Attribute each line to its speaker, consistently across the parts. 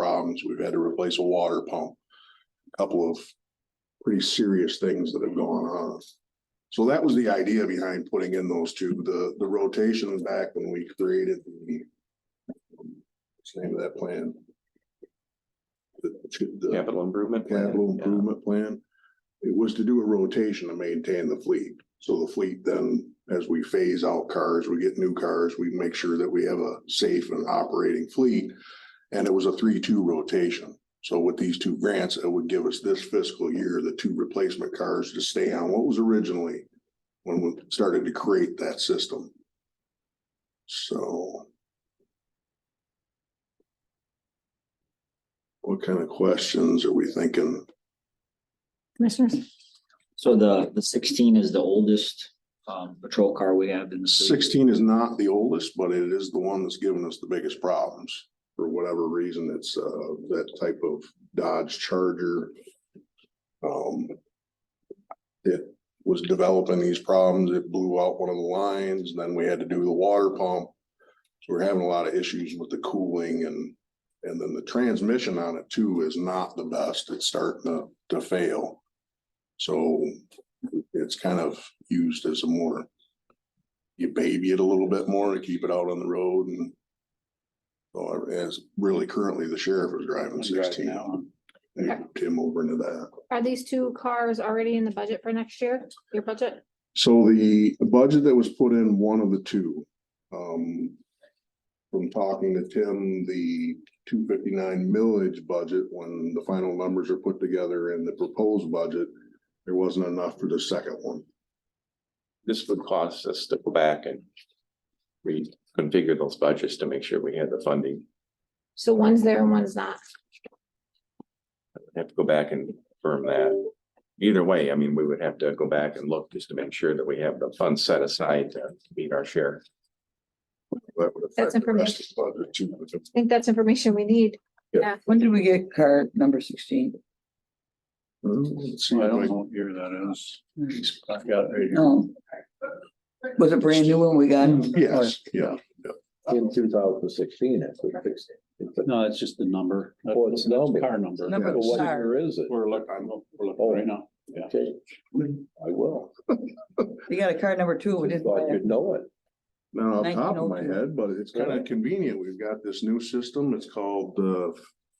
Speaker 1: problems. We've had to replace a water pump. a Couple of pretty serious things that have gone on. So that was the idea behind putting in those two, the, the rotation back when we created the. um, What's the name of that plan? The- the-
Speaker 2: Capital improvement. plan,
Speaker 1: capital
Speaker 2: yeah.
Speaker 1: improvement plan. It was to do a rotation to maintain the fleet. So the fleet then, as we phase out cars, we get new cars, we make sure that we have a safe and operating fleet. And it was a three-two rotation. So with these two grants, it would give us this fiscal year, the two replacement cars to stay on what was originally when we started to create that system. So. What kind of questions are we thinking?
Speaker 3: Commissioners,
Speaker 4: So the, the sixteen is the oldest, um, patrol car we have in the city.
Speaker 1: Sixteen is not the oldest, but it is the one that's given us the biggest problems. For whatever reason, it's uh that type of Dodge Charger. Um. It was developing these problems. It blew out one of the lines, then we had to do the water pump. So we're having a lot of issues with the cooling and, and then the transmission on it too is not the best. It's starting to, to fail. So it's kind of used as a more you baby it a little bit more to keep it out on the road and. Or as really currently the sheriff is driving sixteen now. Tim over into that.
Speaker 3: are these two cars already in the budget for next year, your budget?
Speaker 1: So the budget that was put in, one of the two, um. From talking to Tim, the two fifty-nine millage budget, when the final numbers are put together and the proposed budget. There wasn't enough for the second one.
Speaker 2: This would cost us to go back and reconfigure those budgets to make sure we had the funding.
Speaker 3: So one's there and one's not.
Speaker 2: Have to go back and confirm that. Either way, I mean, we would have to go back and look just to make sure that we have the funds set aside to meet our share.
Speaker 1: That would
Speaker 3: That's
Speaker 1: affect the rest of the budget too.
Speaker 3: I think that's information we need.
Speaker 5: When did we get car number sixteen?
Speaker 1: Let's see
Speaker 6: I
Speaker 1: if I
Speaker 6: don't know what year that is.
Speaker 7: Hmm.
Speaker 6: I've got it right here.
Speaker 5: No. Was it brand new when we got? it?
Speaker 1: Yes, yeah.
Speaker 7: In two thousand sixteen, if we fixed it.
Speaker 6: No, it's just the number. That's
Speaker 7: Oh, it's
Speaker 6: that's
Speaker 7: number. Oh.
Speaker 6: Car number.
Speaker 5: Number
Speaker 7: But what
Speaker 5: Sorry.
Speaker 7: year is it?
Speaker 6: We're looking, we're looking right now.
Speaker 7: Okay, I will.
Speaker 5: We got a car number two, we
Speaker 7: Just
Speaker 5: didn't.
Speaker 7: thought
Speaker 5: buy it.
Speaker 7: you'd know it.
Speaker 1: Not off the top of my
Speaker 5: 1902.
Speaker 1: head, but it's kind of convenient. We've got this new system. It's called uh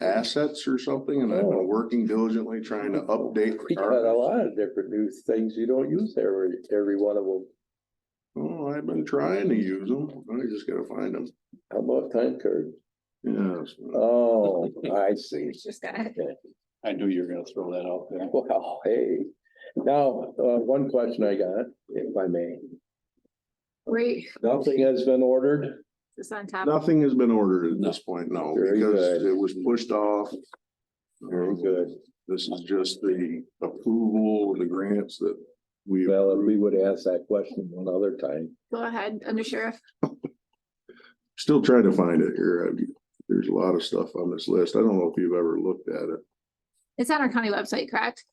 Speaker 1: assets or something, and I've been
Speaker 7: Oh.
Speaker 1: working diligently trying to update. the
Speaker 7: We got a
Speaker 1: car.
Speaker 7: lot of different new things you don't use every, every one of them.
Speaker 1: Oh, I've been trying to use them. I just gotta find them.
Speaker 7: How about time card?
Speaker 1: Yes.
Speaker 7: Oh, I see.
Speaker 3: Just got it.
Speaker 7: Okay.
Speaker 6: I knew you were gonna throw that out there.
Speaker 7: Well, hey, now, uh, one question I got, if I may.
Speaker 3: Wait,
Speaker 7: Nothing has been ordered.
Speaker 3: this on top.
Speaker 1: Nothing has been ordered at this point, no,
Speaker 7: Very
Speaker 1: because
Speaker 7: good.
Speaker 1: it was pushed off.
Speaker 7: Very good.
Speaker 1: This is just the approval of the grants that we.
Speaker 7: Well, if
Speaker 1: approved.
Speaker 7: we would ask that question one other time.
Speaker 3: Go ahead, under sheriff.
Speaker 1: Still trying to find it here. I- There's a lot of stuff on this list. I don't know if you've ever looked at it.
Speaker 3: It's on our county website, correct?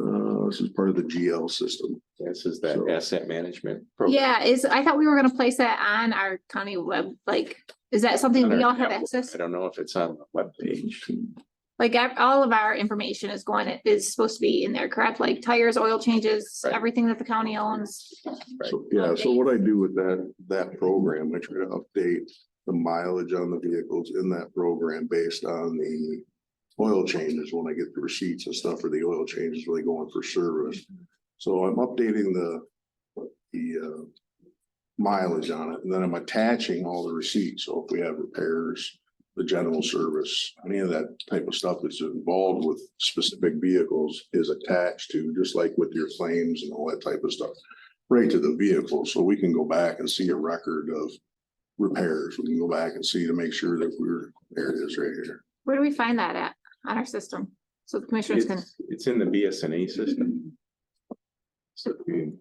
Speaker 1: Uh, this is part of the GL system.
Speaker 2: This is that asset management. program.
Speaker 3: Yeah, is, I thought we were gonna place that on our county web, like, is that something we all have access?
Speaker 2: I don't know if it's on the webpage.
Speaker 3: Like, ev- all of our information is going, it is supposed to be in there, correct? Like tires, oil changes,
Speaker 2: Right.
Speaker 3: everything that the county owns.
Speaker 1: So, yeah, so what I do with that, that program, I try to update the mileage on the vehicles in that program based on the oil changes when I get the receipts and stuff for the oil changes when they go in for service. So I'm updating the, the, uh, mileage on it, and then I'm attaching all the receipts. So if we have repairs, the general service, any of that type of stuff that's involved with specific vehicles is attached to, just like with your claims and all that type of stuff right to the vehicle, so we can go back and see a record of repairs. We can go back and see to make sure that we're, there it is right here.
Speaker 3: Where do we find that at, on our system? So the commissioners can,
Speaker 2: It's, it's in the BSNA E system. So, I mean,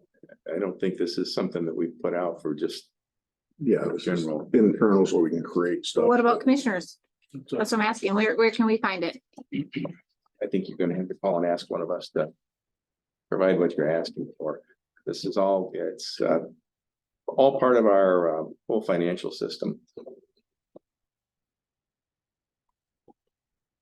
Speaker 2: I don't think this is something that we put out for just
Speaker 1: Yeah,
Speaker 2: the
Speaker 1: this is
Speaker 2: general.
Speaker 1: internal, so we can create stuff.
Speaker 3: what about commissioners? That's what I'm asking. Where, where can we find it?
Speaker 2: I think you're gonna have to call and ask one of us to provide what you're asking for. This is all, it's, uh, all part of our, uh, whole financial system.